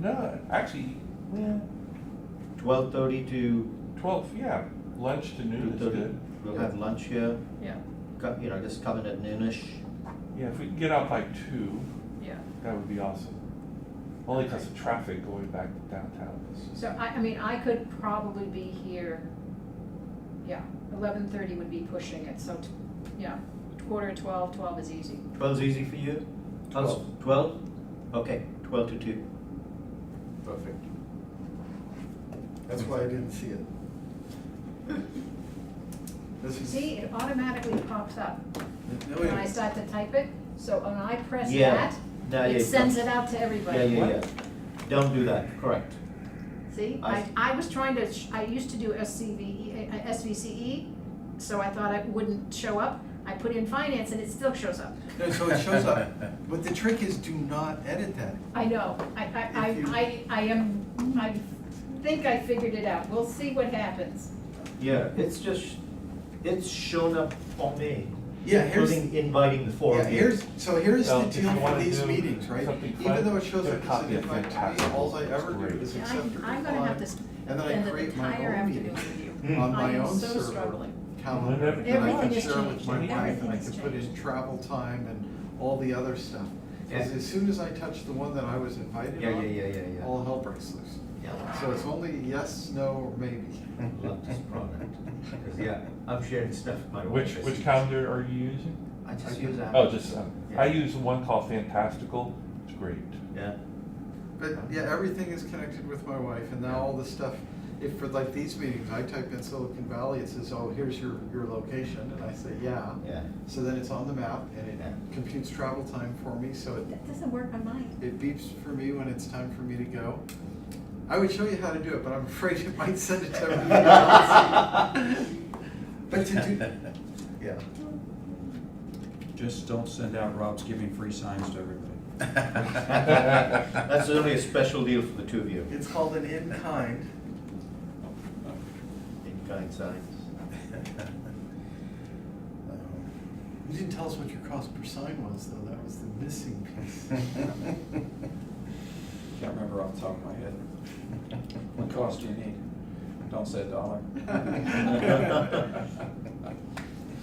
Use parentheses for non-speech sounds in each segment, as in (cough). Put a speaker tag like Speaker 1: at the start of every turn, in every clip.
Speaker 1: No, actually, yeah,
Speaker 2: Twelve thirty to
Speaker 1: twelve, yeah, lunch to noon
Speaker 2: two
Speaker 1: is
Speaker 2: thirty.
Speaker 1: good.
Speaker 2: We'll have lunch here,
Speaker 3: Yeah,
Speaker 2: co- you know, just come in at noonish.
Speaker 1: Yeah, if we can get out by two,
Speaker 3: yeah.
Speaker 1: that would be awesome. Only because of traffic going back to downtown. is-
Speaker 3: So I, I mean, I could probably be here, yeah, eleven thirty would be pushing it, so, t- yeah, quarter to twelve, twelve is easy.
Speaker 2: Twelve's easy for you? How's- Twelve? Okay, twelve to two.
Speaker 4: Perfect. That's why I didn't
Speaker 3: (laughs)
Speaker 4: see it. This is-
Speaker 3: See, it automatically pops up
Speaker 4: No,
Speaker 3: when I
Speaker 4: yeah.
Speaker 3: start to type it, so when I press
Speaker 2: Yeah.
Speaker 3: that,
Speaker 2: No, yeah,
Speaker 3: it sends
Speaker 2: don't-
Speaker 3: it out to everybody.
Speaker 2: Yeah, yeah, yeah. Don't do that, correct.
Speaker 3: See,
Speaker 2: I-
Speaker 3: I, I was trying to, sh- I used to do SCVE, uh, SVCE, so I thought I wouldn't show up. I put in finance and it still shows up.
Speaker 4: No, so it
Speaker 3: (laughs)
Speaker 4: shows up, but the trick is do not edit that.
Speaker 3: I know, I,
Speaker 4: If you-
Speaker 3: I, I, I, I am, I think I figured it out. We'll see what happens.
Speaker 2: Yeah, it's just, it's shown up on me,
Speaker 4: Yeah, here's,
Speaker 2: including inviting the four
Speaker 4: yeah,
Speaker 2: of you.
Speaker 4: here's, so here's the
Speaker 1: Well, if you
Speaker 4: deal for
Speaker 1: wanna
Speaker 4: these
Speaker 1: do
Speaker 4: meetings, right?
Speaker 1: something fun,
Speaker 4: Even though it shows
Speaker 1: get a
Speaker 4: up as
Speaker 1: copy
Speaker 4: an
Speaker 1: of
Speaker 4: invite to me,
Speaker 1: Fantastic.
Speaker 4: all I ever do
Speaker 1: Great.
Speaker 4: is
Speaker 3: And
Speaker 4: accept or
Speaker 3: I, I'm gonna have to
Speaker 4: decline
Speaker 3: spend
Speaker 4: and then I
Speaker 3: an
Speaker 4: create my
Speaker 3: entire
Speaker 4: own
Speaker 3: afternoon
Speaker 4: meeting
Speaker 3: with you.
Speaker 4: on
Speaker 3: I
Speaker 4: my
Speaker 3: am
Speaker 4: own
Speaker 3: so
Speaker 4: server
Speaker 3: struggling.
Speaker 4: calendar.
Speaker 1: Everything
Speaker 4: And I can
Speaker 3: has
Speaker 4: share with
Speaker 3: changed.
Speaker 4: my wife and I
Speaker 3: Everything's
Speaker 4: can put in
Speaker 3: changed.
Speaker 4: travel time and all the other stuff. Because
Speaker 2: Yeah.
Speaker 4: as soon as I touch the one that I was invited
Speaker 2: Yeah, yeah,
Speaker 4: on,
Speaker 2: yeah, yeah, yeah.
Speaker 4: all hell breaks loose.
Speaker 2: Yeah.
Speaker 4: So it's only yes, no, or maybe.
Speaker 2: Love this (laughs) product, 'cause, yeah, I'm sharing stuff with my wife.
Speaker 1: Which, which calendar are you using?
Speaker 2: I just use that.
Speaker 1: Oh, just, um, I
Speaker 2: Yeah.
Speaker 1: use one called Fantastical, it's great.
Speaker 2: Yeah,
Speaker 4: But yeah, everything is connected with my wife, and now all the stuff, if for like these meetings, I type in Silicon Valley, it says, oh, here's your, your location, and I say, yeah.
Speaker 2: yeah.
Speaker 4: So then it's on the map, and
Speaker 2: Yeah.
Speaker 4: it computes travel time for me, so it,
Speaker 3: That doesn't work on mine.
Speaker 4: it beeps for me when it's time for me to go. I would show you how to do it, but I'm afraid it might send it to everybody
Speaker 2: (laughs)
Speaker 4: else. But to do, yeah.
Speaker 5: Just don't send out Rob's giving free signs to everybody.
Speaker 2: (laughs) That's only a special deal for the two of you,
Speaker 4: It's called an in-kind.
Speaker 2: in kind signs.
Speaker 4: You didn't tell us what your cost per sign was, though, that was the missing piece.
Speaker 5: Can't remember off the top of my head. What cost do you need? Don't say a dollar.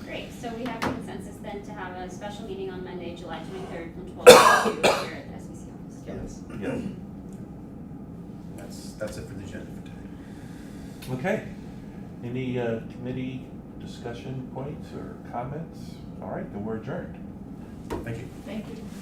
Speaker 6: Great, so we have consensus then to have a special meeting on Monday, July twenty-third from twelve to two here at the SBC office.
Speaker 4: Yes.
Speaker 1: Yeah.
Speaker 2: (clears throat) That's, that's it for the agenda for today.
Speaker 1: Okay. Any uh, committee discussion points or comments? All right, then we're adjourned.
Speaker 2: Thank you.
Speaker 3: Thank you.